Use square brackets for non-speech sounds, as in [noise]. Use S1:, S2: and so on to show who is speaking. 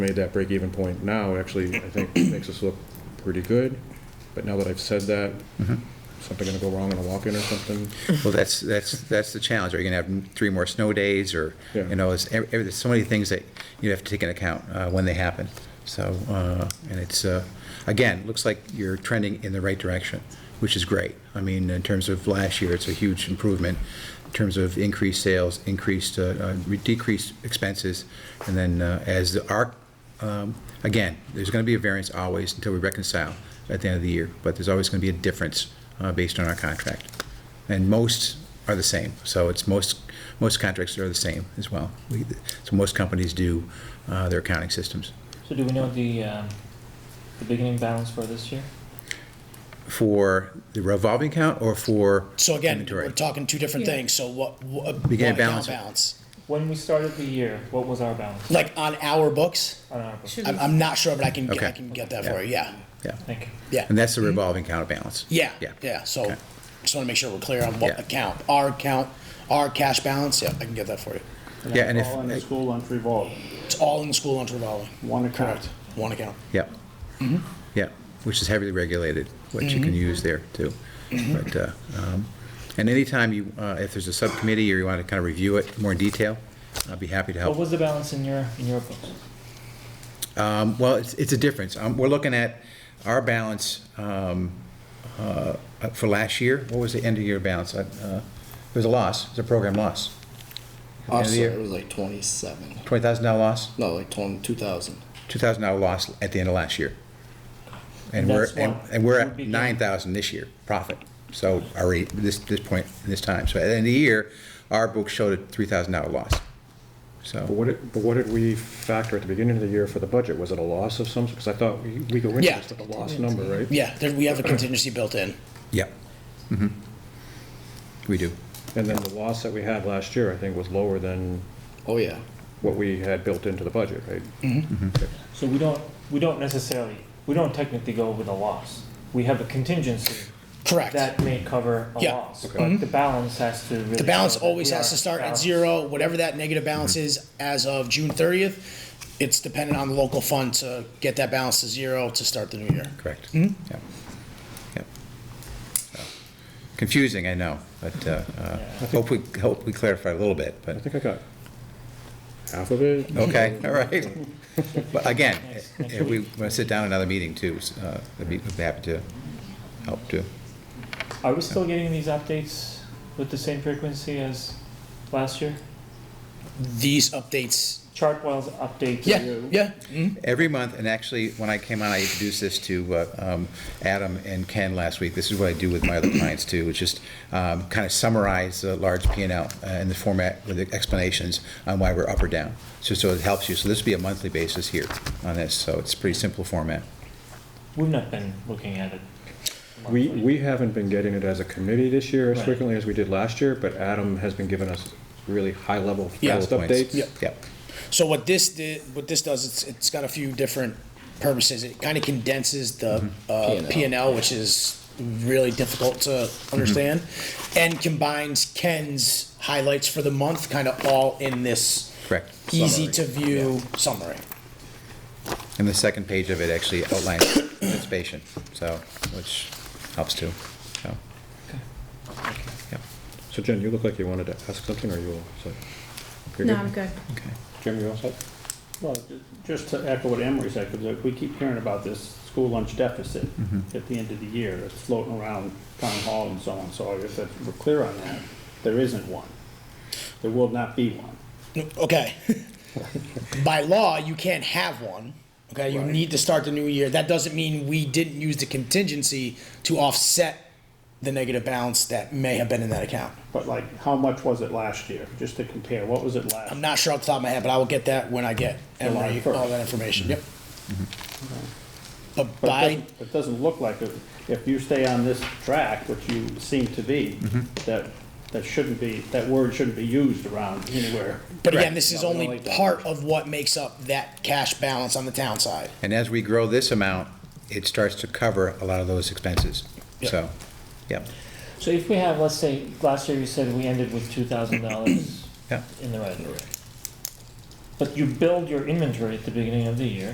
S1: made that break-even point now, actually, I think makes us look pretty good. But now that I've said that, something gonna go wrong in a walk-in or something?
S2: Well, that's, that's, that's the challenge. Are you going to have three more snow days or,
S1: Yeah.
S2: you know, it's, ev- ev- there's so many things that you have to take into account uh, when they happen. So, uh, and it's, uh, again, looks like you're trending in the right direction, which is great. I mean, in terms of last year, it's a huge improvement in terms of increased sales, increased, uh, uh, re- decreased expenses. And then uh, as the arc, um, again, there's going to be a variance always until we reconcile at the end of the year, but there's always going to be a difference uh, based on our contract. And most are the same, so it's most, most contracts are the same as well. We- So most companies do uh, their accounting systems.
S3: So do we know the, um, the beginning balance for this year?
S2: For the revolving account or for?
S4: So again,
S2: inventory?
S4: we're talking two different things, so what, what?
S2: Beginning
S4: what
S2: balance.
S4: account Balance,
S3: When we started the year, what was our balance
S4: like on our books,
S3: on our books?
S5: Should
S4: I'm, I'm not sure, but I can,
S2: Okay.
S4: I can get that for you, yeah,
S2: Yeah,
S3: Thank you.
S4: yeah. Mm-hmm.
S2: and that's the revolving account balance.
S4: Yeah,
S2: Yeah.
S4: yeah, so,
S2: Okay.
S4: just wanna make sure we're clear on what
S2: Yeah.
S4: account, our account, our cash balance, yeah, I can get that for you.
S2: Yeah, and if,
S6: All in the school lunch revolving,
S4: It's all in the school lunch revolving,
S6: one account.
S4: one account.
S2: yeah,
S4: Mm-hmm.
S2: yeah, which is heavily regulated, what you can use there too.
S4: Mm-hmm.
S2: But, uh, um, and anytime you, uh, if there's a subcommittee or you want to kind of review it more in detail, I'd be happy to help.
S3: What was the balance in your, in your books?
S2: Um, Well, it's, it's a difference. Um, We're looking at our balance um, uh, for last year. What was the end of year balance? Uh, It was a loss, it was a program loss. End of the year,
S7: was like twenty-seven.
S2: $20,000 loss,
S7: No, like twenty, two thousand.
S2: $2,000 loss at the end of last year. And we're,
S3: That's
S2: and
S3: what
S2: and we're
S3: would
S2: at
S3: be-
S2: 9,000 this year profit. So our rate, this, this point, this time. So at the end of the year, our book showed a $3,000 loss.
S1: But
S2: So,
S1: what, did- but what did we factor at the beginning of the year for the budget? Was it a loss of some, because I thought we we go into
S4: Yeah.
S1: this with a loss number, right?
S4: Yeah, there, we have a contingency built in,
S2: yep. Mhm. We do.
S1: And then the loss that we had last year, I think, was lower than
S7: Oh, yeah.
S1: what we had built into the budget, right?
S4: Mm-hmm.
S3: So we don't, we don't necessarily, we don't technically go with a loss. We have a contingency
S4: correct.
S3: that may cover a
S4: Yeah. Mm-hmm.
S3: loss, but the balance has to really.
S4: The balance
S3: show that
S4: always
S3: we
S4: has
S3: are
S4: to start at
S3: balanced.
S4: zero, whatever that negative balance is as of June thirtieth. It's dependent on the local fund to get that balance to zero to start the new year.
S2: Correct.
S1: Hmm?
S2: Yep. Yep. So, Confusing, I know, but uh, uh, hope we, hope we clarify a little bit,
S1: I
S2: but,
S1: think I got half of it.
S2: okay, [laughs] all right. But again, if we want to sit down another meeting too, s- uh, I'd be I'd be happy to help too.
S3: Are we still getting these updates with the same frequency as last year?
S4: These updates,
S3: Chartwell's update to
S4: yeah,
S3: you.
S4: yeah, mhm,
S2: Every month, and actually, when I came on, I introduced this to uh, um, Adam and Ken last week. This is what I do with my other clients too, which is um, kind of summarize the large P and L uh, in the format with explanations on why we're up or down. So, so it helps you. So this would be a monthly basis here on this, so it's pretty simple format.
S3: We've not been looking at it.
S1: We, we haven't been getting it as a committee this year as
S3: Right.
S1: frequently as we did last year, but Adam has been giving us really high-level
S4: Yeah.
S1: fast
S2: Points.
S1: updates.
S4: Yep.
S2: Yep.
S4: So what this did, what this does, it's, it's got a few different purposes. It kind of condenses the uh,
S7: P&L.
S4: P and L, which is really difficult to understand, and combines Ken's highlights for the month, kind of all in this
S2: Correct.
S4: easy to view summary.
S2: And the second page of it actually outlines participation, so, which helps too, so. Yep.
S1: So Jen, you look like you wanted to ask something, or you all set? You're
S5: No,
S1: good?
S5: I'm good.
S2: Okay.
S1: Jim, you all set?
S6: Well, ju- just to echo what Emery said, because we keep hearing about this school lunch deficit at the end of the year, it's floating around town hall and so on, so if it's- we're clear on that, there isn't one. There will not be one.
S4: Okay. [laughs] By law, you can't have one. Okay, you need to start the new year. That doesn't mean we didn't use the contingency to offset the negative balance that may have been in that account.
S6: But like, how much was it last year, just to compare, what was it last?
S4: I'm not sure off the top of my head, but I will get that when I get
S6: July
S4: Emory
S6: first.
S4: all that information. Yep. But
S6: Mm-hmm. But it
S4: by,
S6: doesn't- It doesn't look like, it. if you stay on this track, which you seem to be, that, that shouldn't be, that word shouldn't be used around anywhere.
S4: but again, this is
S6: Not
S4: only
S6: really that
S4: part
S6: much.
S4: of what makes up that cash balance on the town side.
S2: And as we grow this amount, it starts to cover a lot of those expenses, so, yep,
S3: So if we have, let's say, last year you said we ended with two thousand dollars
S2: Yeah.
S3: in the red. But you build your inventory at the beginning of the year,